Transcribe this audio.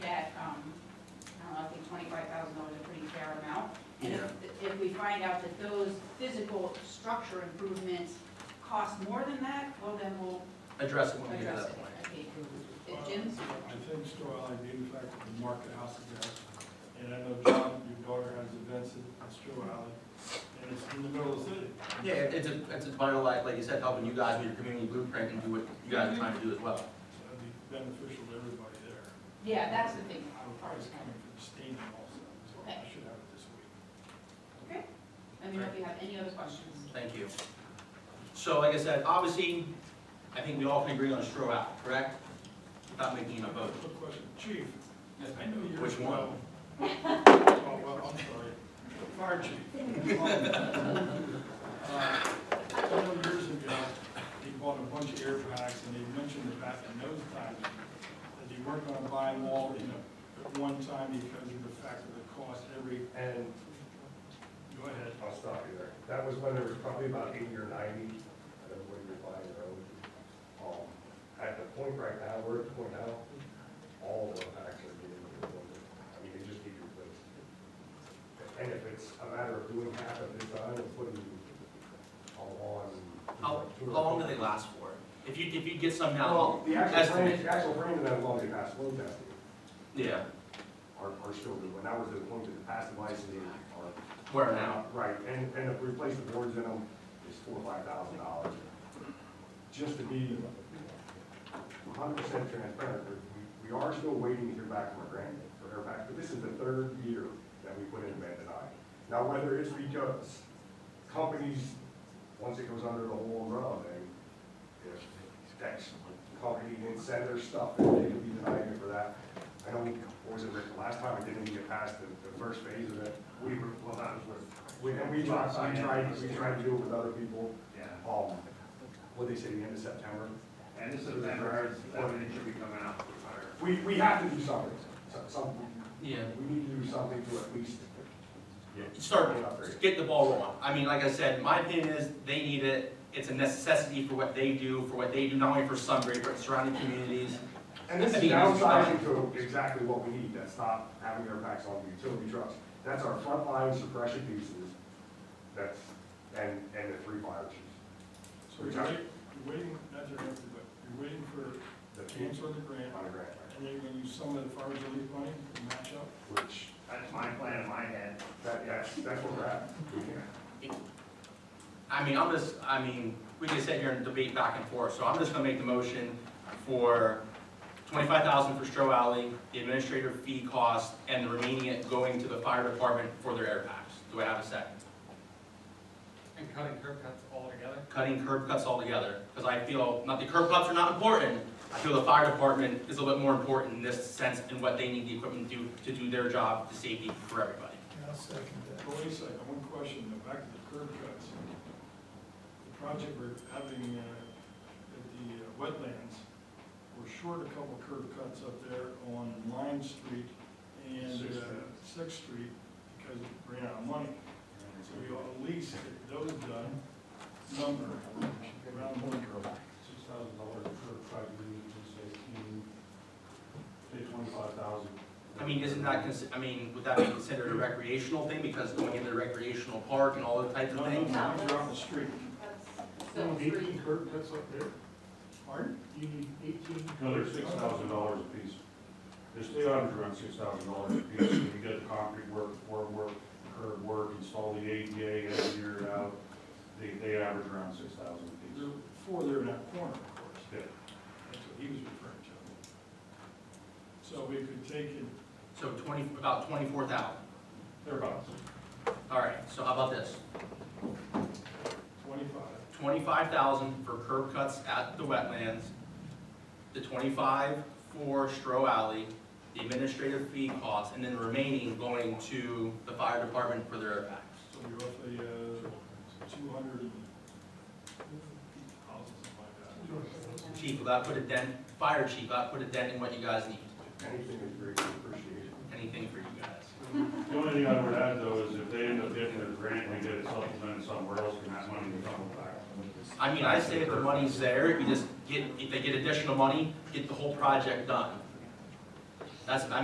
um, find out that those physical structure improvements cost more than that, well, then we'll Address it when we get to address that it. point. Okay, Uh, Jim's? I think Store Alley Beauty Factory, the market house is there. And I know John, your daughter has events at at Store Alley, and it's in the middle of the city. Yeah, it's a, it's a vital, like, like you said, helping you guys with your community blueprint and do what you guys are trying to do as well. So it'd be beneficial to everybody there. Yeah, that's the thing. I would probably just come in for the stadium also, so I should have it this week. Okay, let me know if you have any other questions. Thank you. So like I said, obviously, I think we all can agree on a straw out, correct? Without making it a vote. Quick question, chief, I know you're. Which one? Oh, well, I'm sorry, fire chief. Uh, A couple of years ago, he bought a bunch of airbags, and he mentioned the fact in those times that he weren't gonna buy them all, you know, at one time because of the fact of the cost every, And go ahead. I'll stop you there. That was when there was probably about eighty or ninety, and everybody was buying their own. Um, At the point right now, we're at the point now, all of our packs are getting replaced. I mean, they just need replaced. And if it's a matter of doing half of it, I don't put them on. How, how long do they last for? If you, if you get some now, Well, the actual estimate. brand, the actual brand of that long, they passed load testing, yeah, are, are still good. When I was at the point that the past device, they are wear it out. Right, and, and if we replace the boards in them, it's four, or five thousand dollars. Just to be hundred percent transparent, we, we are still waiting to hear back from our grant, for our back, but this is the third year that we put in Bandit Eye. Now, whether it's because companies, once it goes under the whole umbrella, they, if that company didn't send their stuff, they could be denied it for that. I know, what was it, Rick, the last time it didn't even get past the, the first phase of it, we were, well, that was with we, and we tried, we tried, we tried to do it with other people, Yeah, um, what they say, the end of September. and this is, that's when it should be coming out for fire. We, we have to do something, So- some, Yeah. we need to do something to at least. Start, get the ball rolling. I mean, like I said, my opinion is they need it. It's a necessity for what they do, for what they do, not only for Sunbury, but surrounding communities. And this I is mean, it's fine. downsizing to exactly what we need, that's not having our backs on the utility trucks. That's our frontline suppression pieces, that's, and, and the three fire chiefs. So you're waiting, you're waiting, not to interrupt you, but you're waiting for The teams cancer of the grant, on the grant, and then you're gonna use some of the farmer's relief money to match up? which, That's my plan in my head. that, that's, that's where we're at. We can't- I mean, I'm just, I mean, we can sit here and debate back and forth, so I'm just gonna make the motion for twenty-five thousand for Stro Alley, the administrative fee cost, and the remaining it going to the fire department for their air packs. Do I have a second? And cutting curb cuts altogether? Cutting curb cuts altogether, because I feel, not the curb cuts are not important, I feel the fire department is a little bit more important in this sense and what they need the equipment to, do to do their job, the safety for everybody. Well, wait a second, one question, though, back to the curb cuts. The project we're having uh, at the uh, wetlands, we're short a couple curb cuts up there on Lime Street and Sixth uh, Sixth Street because we ran out of money. So we ought to at least get those done, number, around one curb. six thousand dollars per private unit, just say, mm, say twenty-five thousand. I mean, isn't that, consi- I mean, would that be considered a recreational thing, because going into the recreational park and all those types of No, things? no, no, these are off the street. So three. Eighteen curb cuts up there, Pardon? you need eighteen. No, they're six thousand dollars a piece. The state auditor's around six thousand dollars a piece, and you got the concrete work, form work, curb work, install the ADA, engineer it out, they, they average around six thousand a There piece. are four there in that corner, of course. Yeah. That's what he was referring to. So we could take it So twenty, about twenty-four thousand. They're about All right, so how about this? twenty-five, Twenty-five thousand for curb cuts at the wetlands, the twenty-five for Stro Alley, the administrative fee costs, and then remaining going to the fire department for their impacts. so you're roughly, uh, two hundred and houses, something like that. Chief, will that put a dent, fire chief, will that put a dent in what you guys need? Anything is greatly appreciated. Anything for you guys? The only thing I would add though is if they end up getting their grant, and they get it supplemented somewhere else, and that money will come back. I mean, I say if the money's there, we just get, if they get additional money, get the whole project done. That's, I